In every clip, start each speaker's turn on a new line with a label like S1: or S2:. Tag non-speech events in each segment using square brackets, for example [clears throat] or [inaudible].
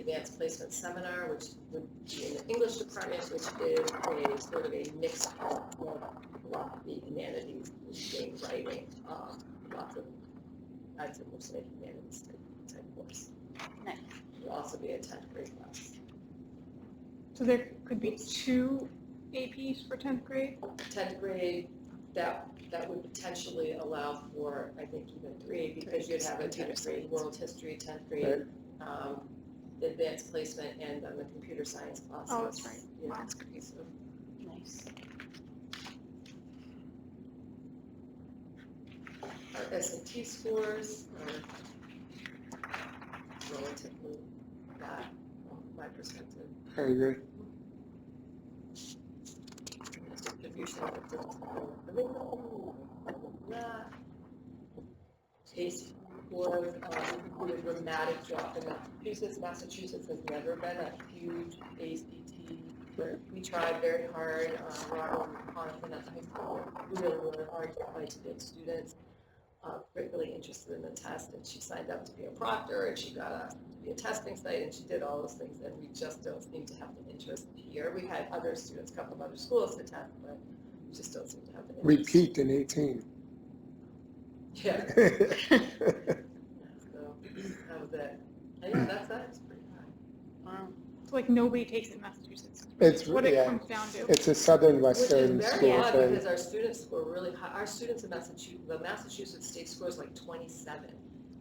S1: advanced placement seminar, which would be in the English department, which is a sort of a mix of what the humanities, reading, writing, um, lots of, I'd say mostly humanities type- type course.
S2: Nice.
S1: It'll also be a tenth grade class.
S3: So there could be two APs for tenth grade?
S1: tenth grade, that, that would potentially allow for, I think, even three, because you'd have a tenth grade world history, tenth grade, um, advanced placement, and then the computer science classes.
S3: Oh, that's right.
S1: you know,
S3: That's great.
S1: so
S2: Nice.
S1: Our S and T scores are relatively bad, from my perspective.
S4: I agree.
S1: Distribution of the oh, curriculum. Case was, um, a dramatic drop in Massachusetts. Massachusetts has never been a huge ACT. We tried very hard, uh, Robert Conahan at the high school, worked really, really hard to try to get students, uh, particularly interested in the test, and she signed up to be a proctor, and she got a be a testing site, and she did all those things, and we just don't seem to have the interest here. We had other students come from other schools to test, but we just don't seem to have the
S4: We
S1: interest.
S4: peaked in eighteen. [laughs]
S1: Yeah, so [clears throat] that was it. I know, that's, that's pretty high.
S2: Wow.
S3: So like nobody takes it in Massachusetts.
S4: It's,
S3: What it
S4: yeah,
S3: comes down to.
S4: it's a southern
S1: Which is
S4: western
S1: very
S4: school
S1: odd,
S4: thing.
S1: because our students score really high. Our students in Massachusetts, the Massachusetts state score is like twenty-seven,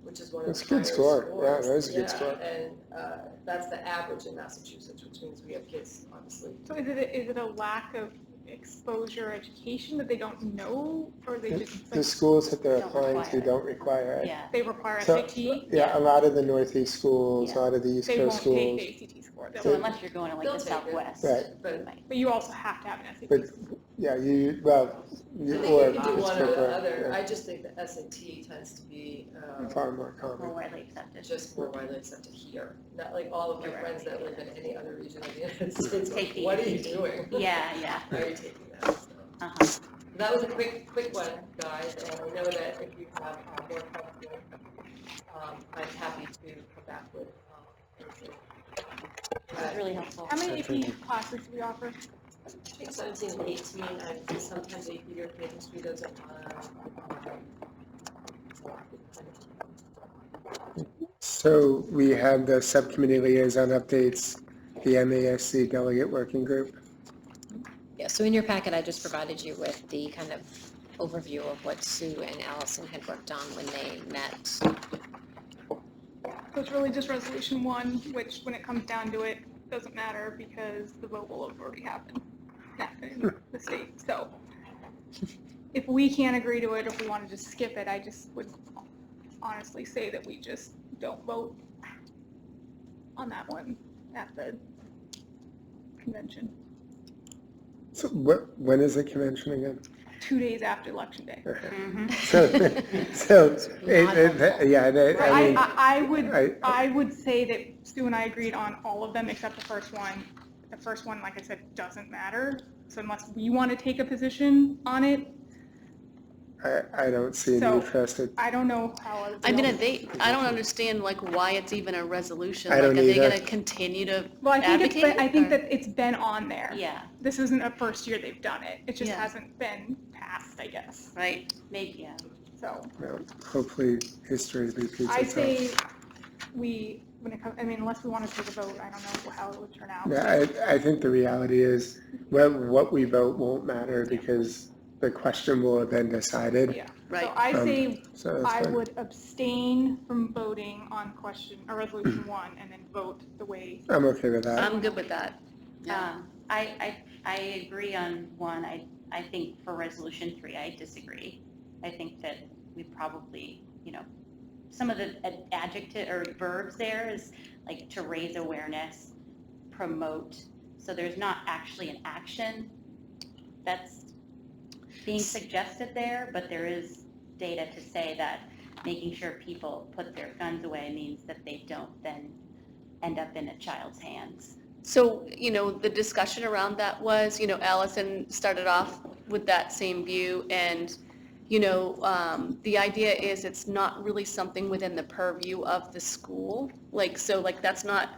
S1: which is one of the
S4: That's
S1: higher
S4: a good
S1: scores.
S4: score. Yeah, that is a good
S1: Yeah,
S4: score.
S1: And, uh, that's the average in Massachusetts, which means we have kids, obviously,
S3: So is it, a- is it a lack of exposure or education that they don't know, or they just,
S4: The
S3: like,
S4: schools that they're
S2: Don't
S4: applying to
S2: require it.
S4: don't require it.
S2: Yeah.
S3: they require
S4: So-
S3: SAT?
S4: Yeah, a lot of the northeast schools, a
S2: Yeah.
S4: lot of the east
S3: They
S4: coast
S3: won't take
S4: schools.
S3: the ACT score, They'll-
S2: So unless you're going to like
S1: They'll
S2: the
S1: take it.
S2: Southwest.
S4: Right.
S1: but
S2: Right.
S3: but you also have to have an SAT.
S4: But,
S3: score.
S4: yeah, you, well,
S1: I
S4: you-
S1: think
S4: or
S1: you could do
S4: it's
S1: one or the
S4: preferred,
S1: other.
S4: yeah,
S1: I just think the S and T tends to be, um,
S4: far more
S2: More
S4: common.
S2: widely accepted.
S1: just more widely accepted here. Not like all of my
S2: Right.
S1: friends that live in any other region of the United [laughs] States,
S2: Take
S1: like,
S2: the E
S1: what are you
S2: ACT.
S1: doing?
S2: Yeah, yeah.
S1: Why are you taking that? So,
S2: Uh-huh.
S1: That was a quick, quick one, guys, and I know that if you have uh, more questions, um, I'm happy to come back with, um, answers.
S2: This is really helpful.
S3: How many
S4: Okay.
S3: AP classes do we offer?
S1: I think seventeen and eighteen, I sometimes a year of history goes up uh, on.
S4: So we have the subcommittee liaison updates, the MASC delegate working group.
S5: Yeah, so in your packet, I just provided you with the kind of overview of what Sue and Allison had worked on when they met.
S3: So it's really just resolution one, which when it comes down to it, doesn't matter because the vote will have already happened, not in the state, so. If we can't agree to it, if we want to just skip it, I just would honestly say that we just don't vote on that one at the convention,
S4: So what, when is the convention again? [laughs]
S3: two days after election day.
S4: Okay.
S2: Mhm.
S4: So, so, it- it-
S5: helpful.
S4: yeah, that- I
S3: I,
S4: mean,
S3: I, I would
S4: I,
S3: I would say that Sue and I agreed on all of them except the first one. The first one, like I said, doesn't matter. So unless we want to take a position on it,
S4: I, I don't see a
S3: So-
S4: need for us to,
S3: I don't know how. other
S6: I mean,
S3: people-
S6: they, I don't understand like why it's even a resolution.
S4: I don't
S6: Like, are they
S4: either.
S6: gonna continue to,
S3: Well, I think it's, been- I
S6: advocate,
S3: think
S6: or-
S3: that it's been on there.
S2: Yeah,
S3: This isn't a first year they've done it. It just
S6: Yeah.
S3: hasn't been passed, I guess.
S6: right?
S2: maybe, yeah.
S3: So
S4: well, hopefully history repeats
S3: I
S4: itself.
S3: say we, when it comes, I mean, unless we want to take a vote, I don't know how it would turn out.
S4: Yeah, I, I think the reality is, what, what we vote won't matter because the question will have been decided,
S3: Yeah. So
S6: Right.
S3: I
S4: Um,
S3: say
S4: so
S3: I
S4: that's fine.
S3: would abstain from voting on question, or resolution one, and then vote the way,
S4: I'm okay with that.
S6: I'm good with that. Yeah.
S2: Um, I, I, I agree on one. I, I think for resolution three, I disagree. I think that we probably, you know, some of the ad- adjective or verbs there is like to raise awareness, promote. So there's not actually an action that's being suggested there, but there is data to say that making sure people put their guns away means that they don't then end up in a child's hands.
S6: So, you know, the discussion around that was, you know, Allison started off with that same view and, you know, um, the idea is it's not really something within the purview of the school. Like, so like that's not